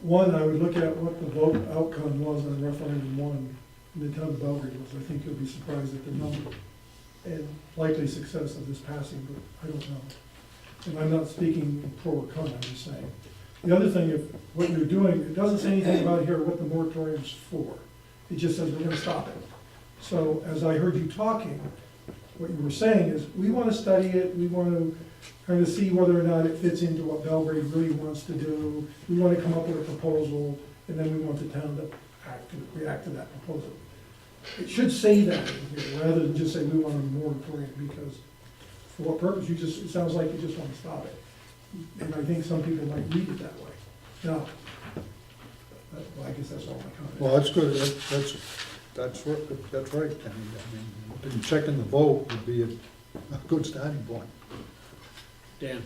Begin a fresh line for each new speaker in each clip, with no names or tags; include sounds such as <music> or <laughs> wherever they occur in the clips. One, I would look at what the vote outcome was on referendum one in the town of Belgrade was. I think you'll be surprised at the number and likely success of this passing, but I don't know. And I'm not speaking pro or con, I'm just saying. The other thing, if what you're doing, it doesn't say anything about here what the moratorium's for. It just says we're gonna stop it. So as I heard you talking, what you were saying is, we wanna study it, we wanna kind of see whether or not it fits into what Belgrade really wants to do. We want to come up with a proposal, and then we want the town to act, react to that proposal. It should say that in here, rather than just say we want a moratorium, because for what purpose? You just, it sounds like you just want to stop it. And I think some people might read it that way. Now, uh, well, I guess that's all my comment.
Well, that's good, That- that's, that's, wor- that's right, I mean, I mean, checking the vote would be a, a good starting point.
Dan,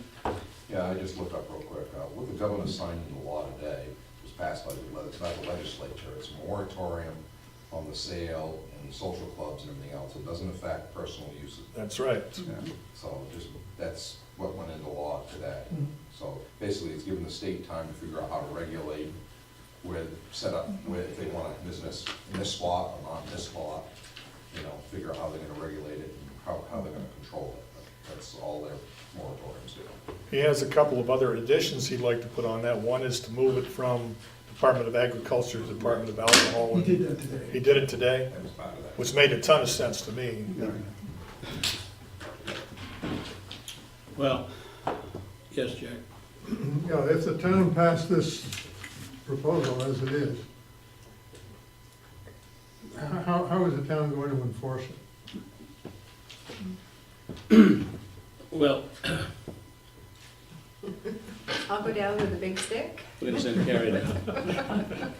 Yeah, I just looked up real quick. Uh, What the governor signed into law today was passed by the, le- it's not the legislature, it's a moratorium on the sale and social clubs and everything else. It doesn't affect personal use of
That's right.
uh,
Yeah, So just, that's what went into law today.
Mhm.
So basically, it's giving the state time to figure out how to regulate where, set up, where if they want a business in this spot or not in this spot, you know, figure out how they're gonna regulate it and how, how they're gonna control it. That's all their moratoriums do.
He has a couple of other additions he'd like to put on that. One is to move it from Department of Agriculture to Department of Alcohol.
He
and-
did that today.
He did it today,
That was part of that.
which made a ton of sense to me.
well, yes, Jack,
Yeah, if the town passed this proposal as it is, how, how is the town going to enforce it?
well,
I'll go down with a big stick.
we're gonna send Carrie down.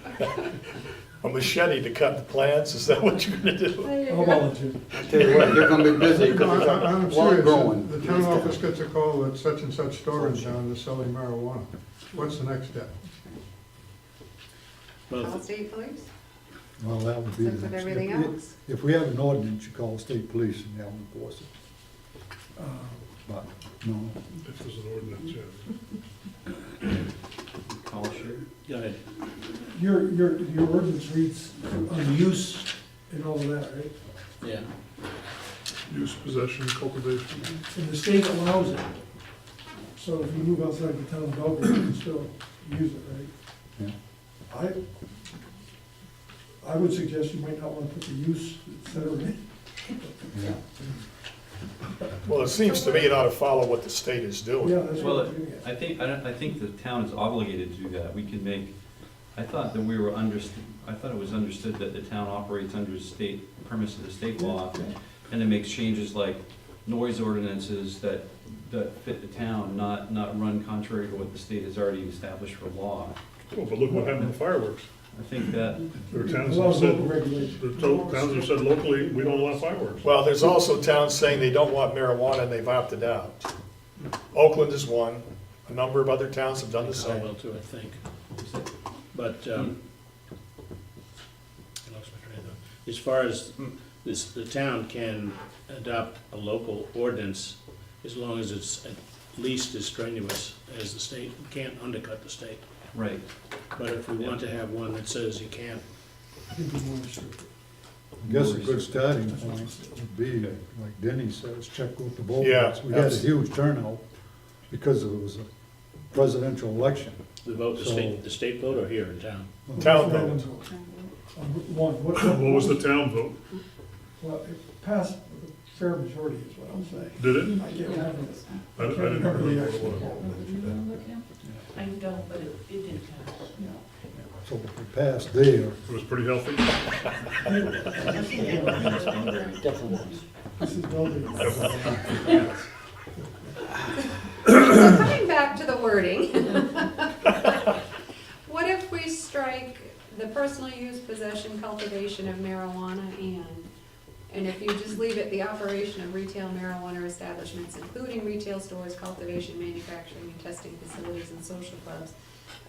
A machete to cut the plants, is that what you're gonna do?
I'll volunteer.
Tell you what, they're gonna be
<laughs>
busy
No,
because
I- I'm
it's long growing.
serious, the town office gets a call that such and such store in town is selling marijuana. What's the next step?
Well,
Call state police,
Well, that would be.
same
the
with
next-
everything
if-
else.
If we have an ordinance, you call state police and they'll enforce it,
Uh,
but, no,
If there's an ordinance, yeah.
Go ahead.
Your, your, your ordinance reads on use and all of that, right?
Yeah,
Use, possession, cultivation.
And the state allows it. So if you move outside the town of Belgrade, you can still use it,
yeah.
right? I, I would suggest you might not want to put the use, et cetera, in.
yeah.
Well, it seems to me it ought to follow what the state is
Yeah,
doing.
that's
Well,
what I'm getting at.
I think, I don't, I think the town is obligated to do that. We can make, I thought that we were under, I thought it was understood that the town operates under state, premise of the state law, and it makes changes like noise ordinances that, that fit the town, not, not run contrary to what the state has already established for law.
Well, Oh, but look what happened to fireworks.
I think that,
There are
As
towns
long
that
as local
said,
regulation.
there are to- towns that said locally, we don't allow fireworks.
Well, there's also towns saying they don't want marijuana and they've opted out. Oakland is one, a number of other towns have done the same.
Caldwell too, I think. But, um, I lost my train of thought. as far as this, the town can adopt a local ordinance as long as it's at least as strenuous as the state, We can't undercut the state.
right,
But if we want to have one that says you can't,
I think we want to restrict it.
I guess a good starting point would be, like Denny says, check with the voters.
Yeah,
We had a
absolutely.
huge turnout because it was a presidential election.
the vote, the state, the state vote or here in town?
Town
Referendum
vote,
vote. On Route One, what?
What was the town vote?
Well, it passed with a fair majority is what I'm saying.
Did it?
I can't remember this.
I I didn't remember what it was.
I don't, but it, it did pass.
So if it passed there,
It was pretty healthy.
Definitely.
This is Belgrade.
So coming back to the wording. <laughs> What if we strike the personal use, possession, cultivation of marijuana and? And if you just leave it, the operation of retail marijuana establishments, including retail stores, cultivation, manufacturing, and testing facilities and social clubs.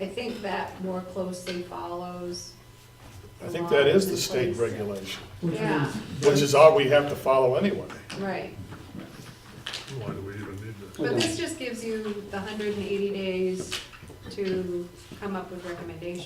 I think that more closely follows.
I think that is the
law
state
in place.
regulation,
Which
Yeah.
means
which is all we have to follow anyway.
Right.
Why do we even need that?
But this just gives you the hundred and eighty days to come up with recommendations.